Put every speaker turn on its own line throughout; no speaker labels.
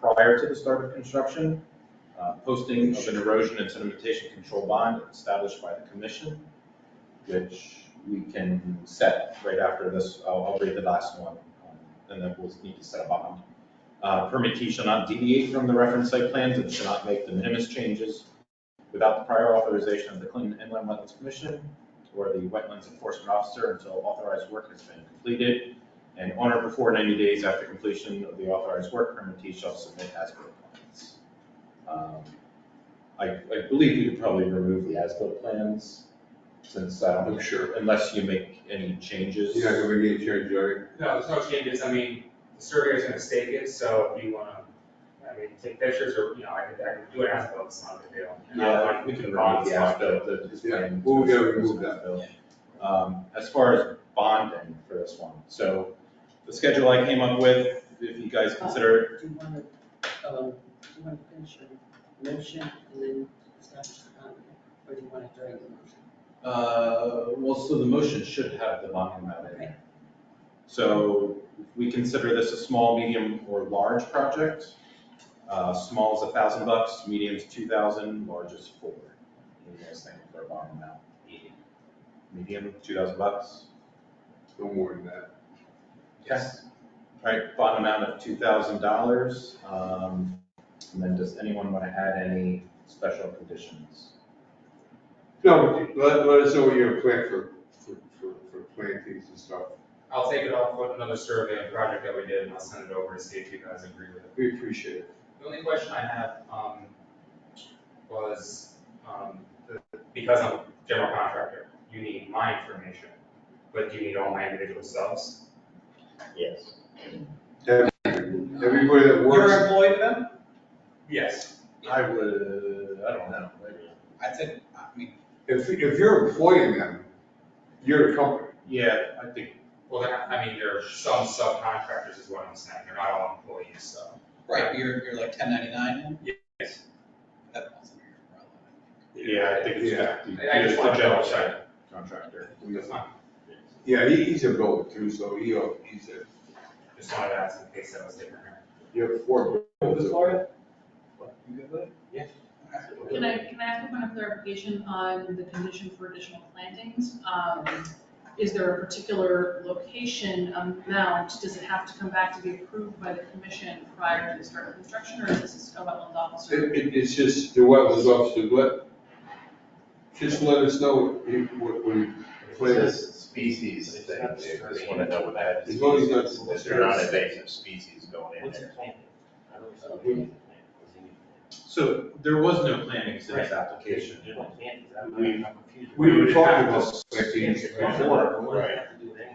prior to the start of construction, uh, posting of an erosion and sedimentation control bond established by the commission, which we can set right after this, I'll, I'll read the last one, um, and then we'll need to set a bond. Uh, Permit T shall not deviate from the reference site plans and shall not make the minimus changes without the prior authorization of the Clinton Inland Wetlands Commission or the Wetlands Enforcement Officer until authorized work has been completed. And on or before 90 days after completion of the authorized work, permittee shall submit as-built plans. Um, I, I believe you could probably remove the as-built plans since I don't,
I'm sure.
unless you make any changes.
You're not gonna make any change, Jerry?
No, there's no changes, I mean, the surveyor's gonna stake it, so if you wanna, I mean, take pictures or, you know, I could, I could do an as-built, it's not a big deal. And I
Yeah,
like
we can remove
bonds,
the
like,
as-built, the. it's
Yeah,
planned
we'll
to-
go remove that.
Um, as far as bonding for this one, so the schedule I came up with, if you guys consider it
Do you want to, um, do you want to finish your motion and then establish the boundary? Or do you want to during the motion?
Uh, well, so the motion should have the bond amount in it. So we consider this a small, medium, or large project. Uh, small is a thousand bucks, medium is two thousand, large is four. What do you guys think for a bond amount? Medium, two thousand bucks?
No more than that.
Yes. All right, bond amount of two thousand dollars. Um, and then does anyone want to add any special conditions?
No, let, let us know what you're planning for, for, for, for plantings and stuff.
I'll take it off with another survey and project that we did, and I'll send it over to see if you guys agree with it.
We appreciate it.
The only question I have, um, was, um, the- because I'm a general contractor, you need my information, but do you need all my individual selves?
Yes.
Everybody that works,
employee to them?
Yes.
I would, I don't know, maybe.
I think, I mean,
if, if you're employing them, you're a company.
Yeah, I think
Well, then, I mean, there are some subcontractors is what I'm saying, they're not all employees, so.
right, you're, you're like ten ninety-nine?
Yes.
That falls under your umbrella.
Yeah, I think it's
Yeah.
just. the-
I- I just
the
wanna
general
double check.
Contractor.
That's fine,
Yeah, he, he's a builder too, so he, uh, he's a,
just wanted to ask in case that was different.
you have four builders.
Can I, can I ask a point of clarification on the condition for additional plantings? Um, Is there a particular location amount? Does it have to come back to be approved by the commission prior to the start of construction, or is this a wetlands officer?
It, it, it's just the wetlands officer, let, just let us know what, what, what you plan.
This species thing, they just wanna know what that is.
As long as not-
Is there not invasive species going in
What's a
there?
plan? I don't know.
Uh, we-
So there was no planning to this application.
There's no plan, I'm-
We-
I'm confused.
We were talking
have
about plantings
We
before.
wouldn't
right.
have to do anything.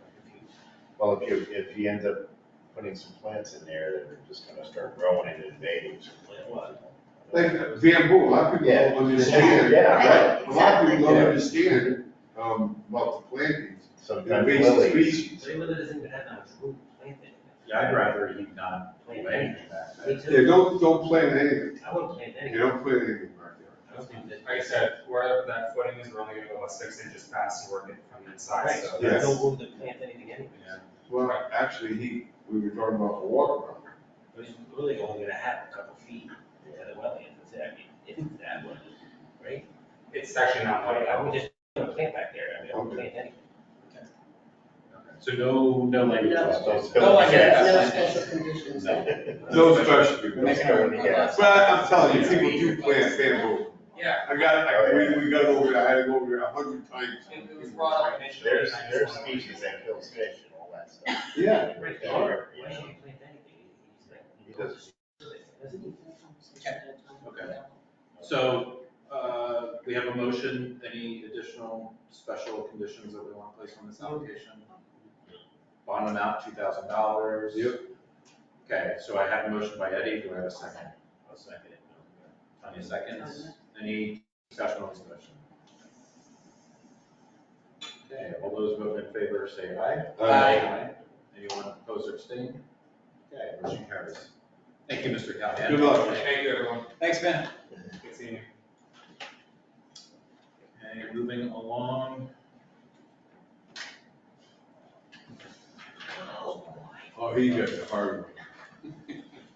I'm confused.
Well, if you, if you end up putting some plants in there, that are just gonna start growing and invading some plants.
Like bamboo, a lot of people
Yeah.
don't understand.
Yeah, right.
A lot of people don't
Yeah.
understand, um, about the plantings,
Sometimes
invasive
lilies.
species.
They literally doesn't even have that much room to plant anything.
Yeah, I'd rather you not do
Plant
anything back
anything.
then.
Me too.
Yeah, don't, don't plant anything,
I wouldn't plant
you
anything.
don't plant anything back there.
I don't think that-
Like I said, wherever that footing is, we're only gonna go about six inches past to work it from the inside,
Right,
so
so
yeah.
that's.
there's no room to plant anything anyway.
Yeah.
Well, actually, he, we were talking about the water.
There's really only gonna have a couple feet at the wetland, that's it, I mean, if it's that one, right?
It's actually not like
I
that.
would just put a plant back there, I mean, I wouldn't plant anything.
So no, no language. Oh,
No.
about those.
No, I guess.
No special conditions.
No special
Make it
people.
over to gas.
But I'm telling you, people do plant bamboo.
Yeah,
I got,
Oh,
I, we, we got over, I had to go over it a hundred times.
it it was brought up initially.
There's,
and I just
there's
wanted to-
species that kills fish and all that stuff.
Yeah.
Right,
Yeah.
Why should you plant anything? He's like-
He does.
Doesn't he?
Okay. So, uh, we have a motion, any additional special conditions that we want to place on this application? Bond amount, two thousand dollars.
Yep.
Okay, so I have a motion by Eddie, do I have a second?
I'll second it.
Tanya seconds, any discussion on this motion? Okay, all those voting in favor say aye.
Uh,
Anyone opposed or abstained? Okay, motion carries. Thank you, Mr. Callahan.
Good luck.
Thank you, everyone.
Thanks, Ben.
Good seeing you.
Okay, moving along.
Oh, he got the hard one.